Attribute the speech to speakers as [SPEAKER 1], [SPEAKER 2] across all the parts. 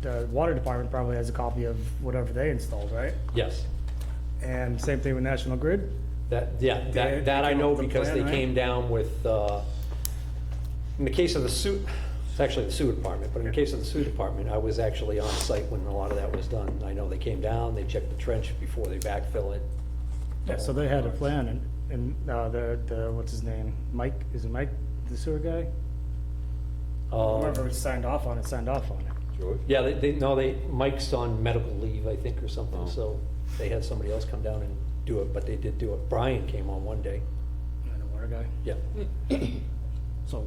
[SPEAKER 1] the water department probably has a copy of whatever they installed, right?
[SPEAKER 2] Yes.
[SPEAKER 1] And same thing with National Grid.
[SPEAKER 2] That, yeah,
[SPEAKER 1] They-
[SPEAKER 2] that, that
[SPEAKER 1] they
[SPEAKER 2] I
[SPEAKER 1] came
[SPEAKER 2] know
[SPEAKER 1] up with a
[SPEAKER 2] because they
[SPEAKER 1] plan, right?
[SPEAKER 2] came down with, uh, in the case of the sewer, it's actually the sewer department, but in the case of the sewer department, I was actually on site when a lot of that was done. I know they came down, they checked the trench before they backfill it.
[SPEAKER 1] Yeah, so they had a plan and, and, uh, the, the, what's his name? Mike, is it Mike, the sewer guy?
[SPEAKER 2] Uh,
[SPEAKER 1] Whoever signed off on it, signed off on it.
[SPEAKER 3] George?
[SPEAKER 2] Um, Yeah, they, they, no, they, Mike's on medical leave, I think, or something, so they had somebody else come down and do it, but they did do it. Brian came on one day,
[SPEAKER 1] And the water guy.
[SPEAKER 2] yeah.
[SPEAKER 1] So,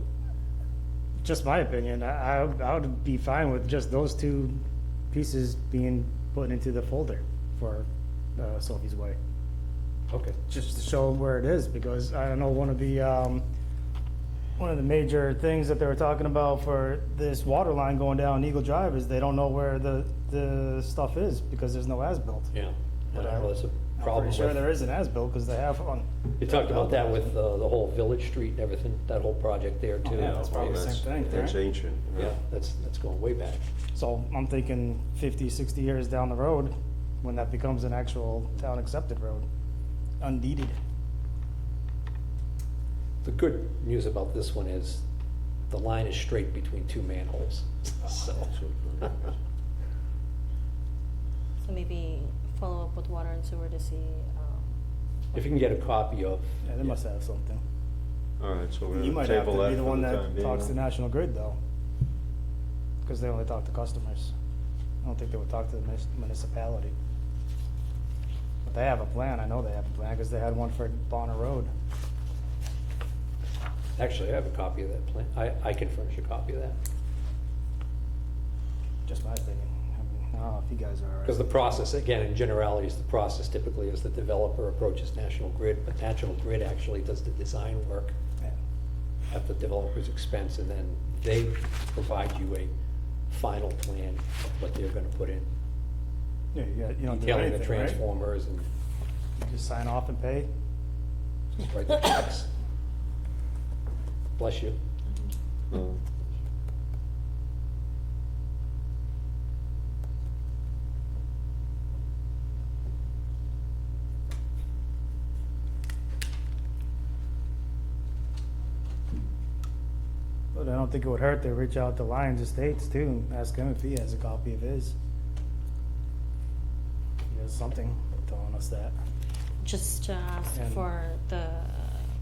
[SPEAKER 1] just my opinion, I, I would- I would be fine with just those two pieces being put into the folder for uh, Sophie's Way.
[SPEAKER 2] Okay.
[SPEAKER 1] Just to show them where it is, because I don't know, one of the, um, one of the major things that they were talking about for this water line going down Eagle Drive is they don't know where the, the stuff is, because there's no as-built.
[SPEAKER 2] Yeah, I
[SPEAKER 1] But I-
[SPEAKER 2] know that's a
[SPEAKER 1] I'm
[SPEAKER 2] problem
[SPEAKER 1] pretty sure
[SPEAKER 2] with-
[SPEAKER 1] there is an as-built, because they have one.
[SPEAKER 2] You talked about that with uh, the whole Village Street and everything, that whole project there too.
[SPEAKER 1] yeah, that's probably the
[SPEAKER 3] Oh, That's-
[SPEAKER 1] same thing,
[SPEAKER 3] That's
[SPEAKER 1] right?
[SPEAKER 3] ancient. yeah.
[SPEAKER 2] Yeah, that's, that's going way back.
[SPEAKER 1] So I'm thinking 50, 60 years down the road, when that becomes an actual town-accepted road, undeeded.
[SPEAKER 2] The good news about this one is the line is straight between two manholes, so.
[SPEAKER 4] So maybe follow up with water and sewer to see, um,
[SPEAKER 2] If you can get a copy of.
[SPEAKER 1] Yeah, they must have something.
[SPEAKER 3] All right, so we're
[SPEAKER 1] You
[SPEAKER 3] gonna
[SPEAKER 1] might have
[SPEAKER 3] table
[SPEAKER 1] to
[SPEAKER 3] that
[SPEAKER 1] be the
[SPEAKER 3] for
[SPEAKER 1] one
[SPEAKER 3] the time
[SPEAKER 1] that
[SPEAKER 3] being.
[SPEAKER 1] talks to
[SPEAKER 3] huh?
[SPEAKER 1] National Grid, though, because they only talk to customers. I don't think they would talk to the munis- municipality. But they have a plan, I know they have a plan, because they had one for Bonner Road.
[SPEAKER 2] Actually, I have a copy of that plan. I, I can furnish a copy of that.
[SPEAKER 1] Just my opinion. I mean, I don't know if you guys are. all right.
[SPEAKER 2] Because the process, again, in generalities, the process typically is the developer approaches National Grid, but National Grid actually does the design work
[SPEAKER 1] Yeah.
[SPEAKER 2] at the developer's expense, and then they provide you a final plan of what they're gonna put in.
[SPEAKER 1] Yeah, you got- you don't do
[SPEAKER 2] Detailing the
[SPEAKER 1] anything, right?
[SPEAKER 2] transformers and
[SPEAKER 1] You Just sign off and pay.
[SPEAKER 2] just write the checks. Bless you.
[SPEAKER 3] No.
[SPEAKER 1] But I don't think it would hurt to reach out to Lyons Estates too, and ask him if he has a copy of his. He has something telling us that.
[SPEAKER 4] just to ask
[SPEAKER 1] And-
[SPEAKER 4] for the,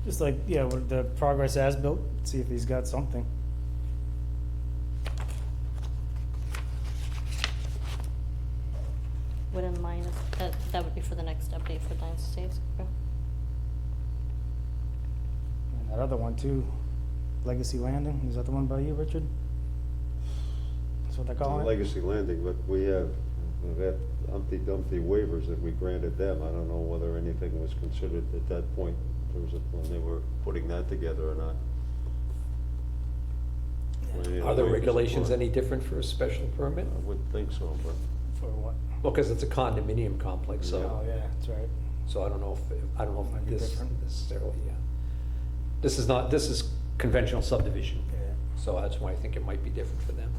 [SPEAKER 1] Just like, yeah, with the progress as built, see if he's got something.
[SPEAKER 4] wouldn't mind, if- that, that would be for the next update for Lions Estates, correct?
[SPEAKER 1] And that other one too, Legacy Landing, is that the one by you, Richard? That's what they're calling it?
[SPEAKER 3] Legacy Landing, but we have, we've had Humpty Dumpty waivers that we granted them. I don't know whether anything was considered at that point, there was a, when they were putting that together or not. Whether they had
[SPEAKER 2] Are the
[SPEAKER 3] waivers or
[SPEAKER 2] regulations
[SPEAKER 3] not.
[SPEAKER 2] any different for a special permit?
[SPEAKER 3] I would think so, but
[SPEAKER 1] For what?
[SPEAKER 2] Well, because it's a condominium complex,
[SPEAKER 1] Oh,
[SPEAKER 2] so,
[SPEAKER 1] yeah, that's right.
[SPEAKER 2] so I don't know if, I don't know
[SPEAKER 1] Might
[SPEAKER 2] if
[SPEAKER 1] be
[SPEAKER 2] this
[SPEAKER 1] different.
[SPEAKER 2] necessarily, yeah. This is not, this is conventional subdivision,
[SPEAKER 1] Yeah.
[SPEAKER 2] so that's why I think it might be different for them.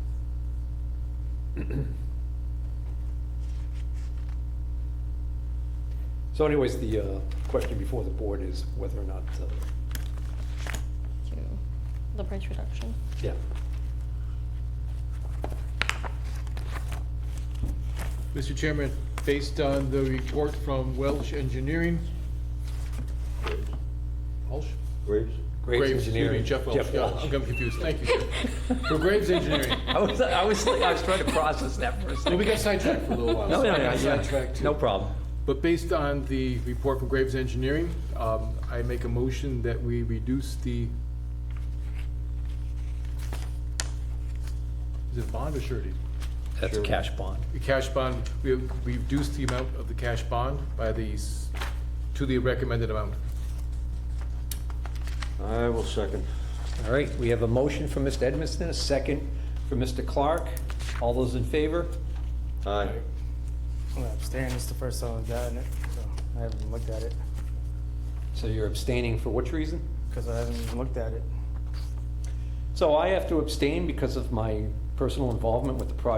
[SPEAKER 2] So anyways, the uh, question before the board is whether or not, uh,
[SPEAKER 4] To the price reduction?
[SPEAKER 2] yeah,
[SPEAKER 5] Mr. Chairman, based on the report from Welsh Engineering, Welsh?
[SPEAKER 3] Graves?
[SPEAKER 2] Graves
[SPEAKER 5] excuse me,
[SPEAKER 2] Engineering.
[SPEAKER 5] Jeff Welsh, yeah,
[SPEAKER 2] Welsh.
[SPEAKER 5] I'm getting confused, thank you. For Graves Engineering,
[SPEAKER 2] I was, I was, I was trying to process that for a
[SPEAKER 5] well,
[SPEAKER 2] second.
[SPEAKER 5] we got sidetracked for a little while.
[SPEAKER 2] No,
[SPEAKER 5] so
[SPEAKER 2] no,
[SPEAKER 5] I
[SPEAKER 2] no,
[SPEAKER 5] got
[SPEAKER 2] yeah.
[SPEAKER 5] sidetracked too.
[SPEAKER 2] No problem.
[SPEAKER 5] But based on the report from Graves Engineering, um, I make a motion that we reduce the, is it bond or surety?
[SPEAKER 2] That's a cash bond.
[SPEAKER 5] The cash bond, we we reduced the amount of the cash bond by these, to the recommended amount.
[SPEAKER 3] I will second.
[SPEAKER 2] All right, we have a motion from Mr. Edmiston, a second from Mr. Clark. All those in favor?
[SPEAKER 3] Aye.
[SPEAKER 1] I'm gonna abstain, it's the first time I've gotten it, so I haven't even looked at it,
[SPEAKER 2] So you're abstaining for which reason?
[SPEAKER 1] because I haven't even looked at it.
[SPEAKER 2] So I have to abstain because of my personal involvement with the project